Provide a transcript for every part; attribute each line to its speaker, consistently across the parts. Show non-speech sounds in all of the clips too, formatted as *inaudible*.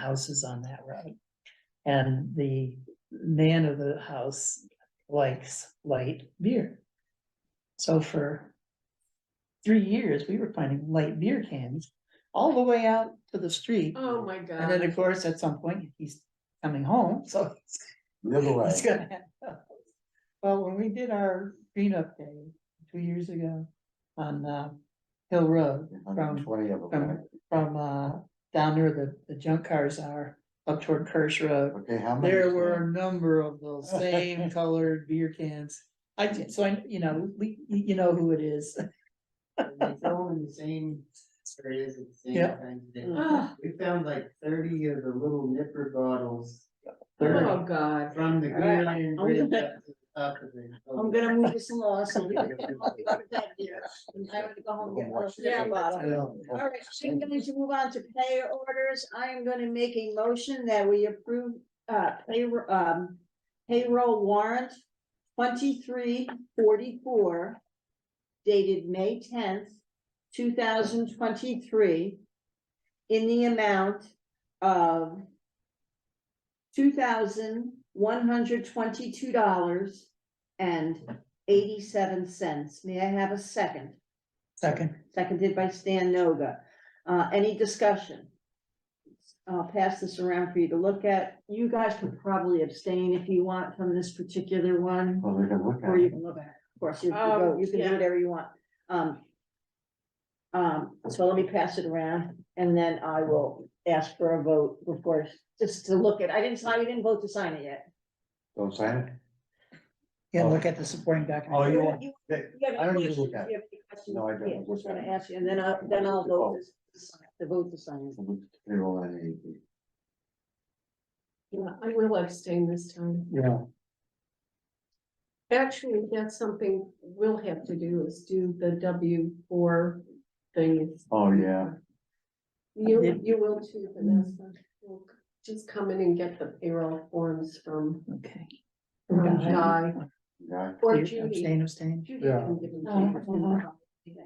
Speaker 1: houses on that road. And the man of the house likes light beer. So for three years, we were finding light beer cans all the way out to the street.
Speaker 2: Oh, my God.
Speaker 1: And then, of course, at some point, he's coming home, *laughs* so it's
Speaker 3: Live away.
Speaker 1: it's gonna happen. Well, when we did our green up day two years ago on uh Hill Road from
Speaker 3: Twenty of them. right?
Speaker 1: from uh down near the the junk cars are up toward Kirsch Road.
Speaker 3: Okay, how many?
Speaker 1: There were a number of those same colored beer cans. I did, so I, you know, we, you know who it is.
Speaker 4: It's all in the same areas at the same
Speaker 1: Yeah.
Speaker 4: time. today.
Speaker 2: Oh,
Speaker 4: We found like thirty of the little nipper bottles.
Speaker 2: oh,
Speaker 4: Thirty
Speaker 2: God.
Speaker 4: from the
Speaker 5: right,
Speaker 4: Green Iron
Speaker 5: I'm
Speaker 4: Bridge up
Speaker 5: gonna-
Speaker 4: to the top of the.
Speaker 5: *laughs* I'm gonna move this along so we can put that here. And I'm gonna go home and get a little
Speaker 3: Yeah.
Speaker 5: beer bottle. All
Speaker 3: All
Speaker 5: right, so I'm going to move on to player orders. I am going to make a motion that we approve, uh, pay, um, payroll warrant twenty-three forty-four dated May tenth, two thousand twenty-three in the amount of two thousand one hundred twenty-two dollars and eighty-seven cents. May I have a second?
Speaker 1: Second,
Speaker 5: seconded by Stan Noga. Uh, any discussion? I'll pass this around for you to look at. You guys could probably abstain if you want from this particular one,
Speaker 3: Well, they're gonna look
Speaker 5: or you
Speaker 3: at it.
Speaker 5: can look at, it. of course, you can
Speaker 2: Um,
Speaker 5: vote, you can do
Speaker 2: yeah.
Speaker 5: whatever you want. Um, um, so let me pass it around, and then I will ask for a vote before, just to look at, I didn't sign, we didn't vote to sign it yet.
Speaker 3: Don't sign it?
Speaker 1: yeah, look at the supporting document.
Speaker 3: Oh, you want-
Speaker 5: You
Speaker 3: They-
Speaker 5: you have
Speaker 3: I
Speaker 5: any
Speaker 3: don't even
Speaker 5: questions?
Speaker 3: look at it.
Speaker 5: You have any questions?
Speaker 3: No, I don't Oh,
Speaker 5: Yeah,
Speaker 3: look
Speaker 5: Just wanna
Speaker 3: at it.
Speaker 5: ask you, and then I, then I'll vote to, to vote to sign it.
Speaker 3: Payroll and AP.
Speaker 2: Yeah, I will abstain this time.
Speaker 3: Yeah.
Speaker 2: Actually, that's something we'll have to do is do the W four thing.
Speaker 3: Oh, yeah.
Speaker 2: You, you will too, Vanessa. We'll Just come in and get the payroll forms from,
Speaker 1: Okay.
Speaker 2: from Guy
Speaker 3: Yeah.
Speaker 2: or Judy.
Speaker 1: Abstain, abstain.
Speaker 2: Judy can give them to you.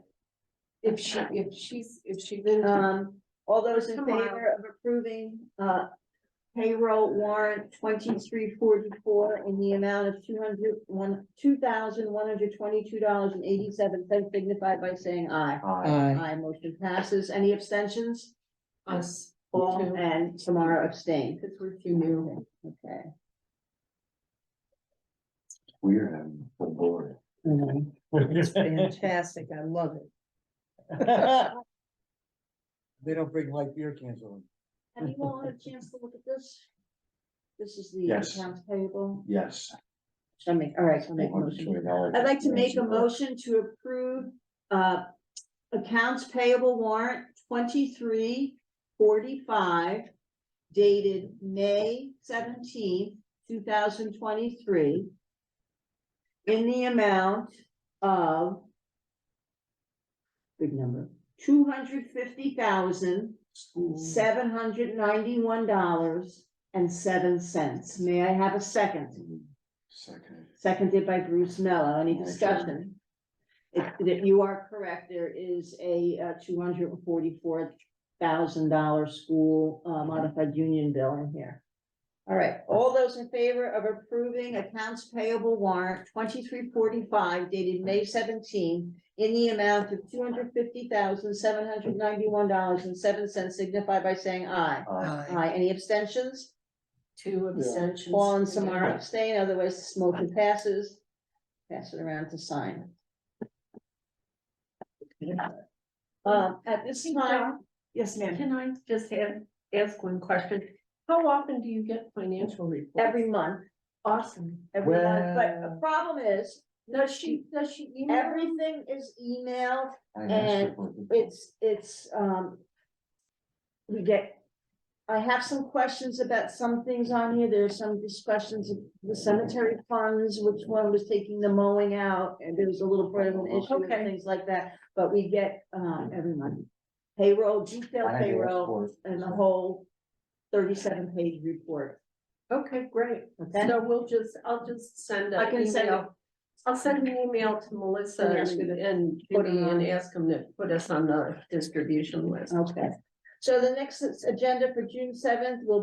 Speaker 2: If she, if she's, if she
Speaker 1: Uh,
Speaker 2: didn't,
Speaker 5: Um, all those in
Speaker 2: Tomorrow.
Speaker 5: favor of approving, uh, payroll warrant twenty-three forty-four in the amount of two hundred one, two thousand one hundred twenty-two dollars and eighty-seven cents signified by saying aye.
Speaker 3: Aye.
Speaker 1: Aye.
Speaker 5: Aye, motion passes. Any abstentions?
Speaker 2: us,
Speaker 5: All
Speaker 2: Two.
Speaker 5: and Tamara abstained.
Speaker 2: because we're too new.
Speaker 5: Okay.
Speaker 3: We're having a full *laughs* board.
Speaker 1: Mhm. It's fantastic, I love it.
Speaker 3: They don't bring light beer cans on.
Speaker 5: Have you all had a chance to look at this? This is the
Speaker 3: Yes.
Speaker 5: accounts payable.
Speaker 3: Yes.
Speaker 5: Should I make, all right, so I'll make a motion. I'd
Speaker 3: I'd
Speaker 5: like to make a motion to approve, uh, accounts payable warrant twenty-three forty-five dated May seventeenth, two thousand twenty-three in the amount of big number, two hundred fifty thousand, seven hundred ninety-one dollars and seven cents. May I have a second?
Speaker 3: Second.
Speaker 5: Seconded by Bruce Mello. Any
Speaker 3: Motion.
Speaker 5: discussion? If, that you are correct, there is a uh, two hundred and forty-four thousand dollar school uh, modified union bill in here. All right, all those in favor of approving accounts payable warrant twenty-three forty-five dated May 17 in the amount of two hundred fifty thousand, seven hundred ninety-one dollars and seven cents signify by saying aye.
Speaker 3: Aye.
Speaker 1: Aye.
Speaker 5: Aye, any abstentions?
Speaker 2: Two abstentions.
Speaker 5: Paul and Samara abstain, otherwise this motion passes. Pass it around to sign. Um, at this time, yes, ma'am,
Speaker 2: Can I just have, ask one question? How often do you get financial reports?
Speaker 5: every month,
Speaker 2: Awesome.
Speaker 5: every month, but the
Speaker 3: Well-
Speaker 5: problem is,
Speaker 2: Does she, does she email?
Speaker 5: everything is emailed,
Speaker 3: I asked her
Speaker 5: And
Speaker 3: for the-
Speaker 5: it's, it's, um. We get, I have some questions about some things on here, there's some discussions of the cemetery funds, which one was taking the mowing out, and there was a little bit of an issue and
Speaker 2: Okay.
Speaker 5: things like that, but we get, um, every month. Payroll, detailed
Speaker 3: I asked
Speaker 5: payroll,
Speaker 3: for it.
Speaker 5: and the whole thirty-seven page report,
Speaker 2: Okay, great.
Speaker 5: okay?
Speaker 2: So we'll just, I'll just send
Speaker 5: I
Speaker 2: an
Speaker 5: can send
Speaker 2: email. I'll send an email to Melissa
Speaker 5: And ask her
Speaker 2: and
Speaker 5: to
Speaker 2: and
Speaker 5: put it
Speaker 2: Judy
Speaker 5: on.
Speaker 2: and ask them to put us on the distribution list.
Speaker 5: Okay, So the next agenda for June seventh will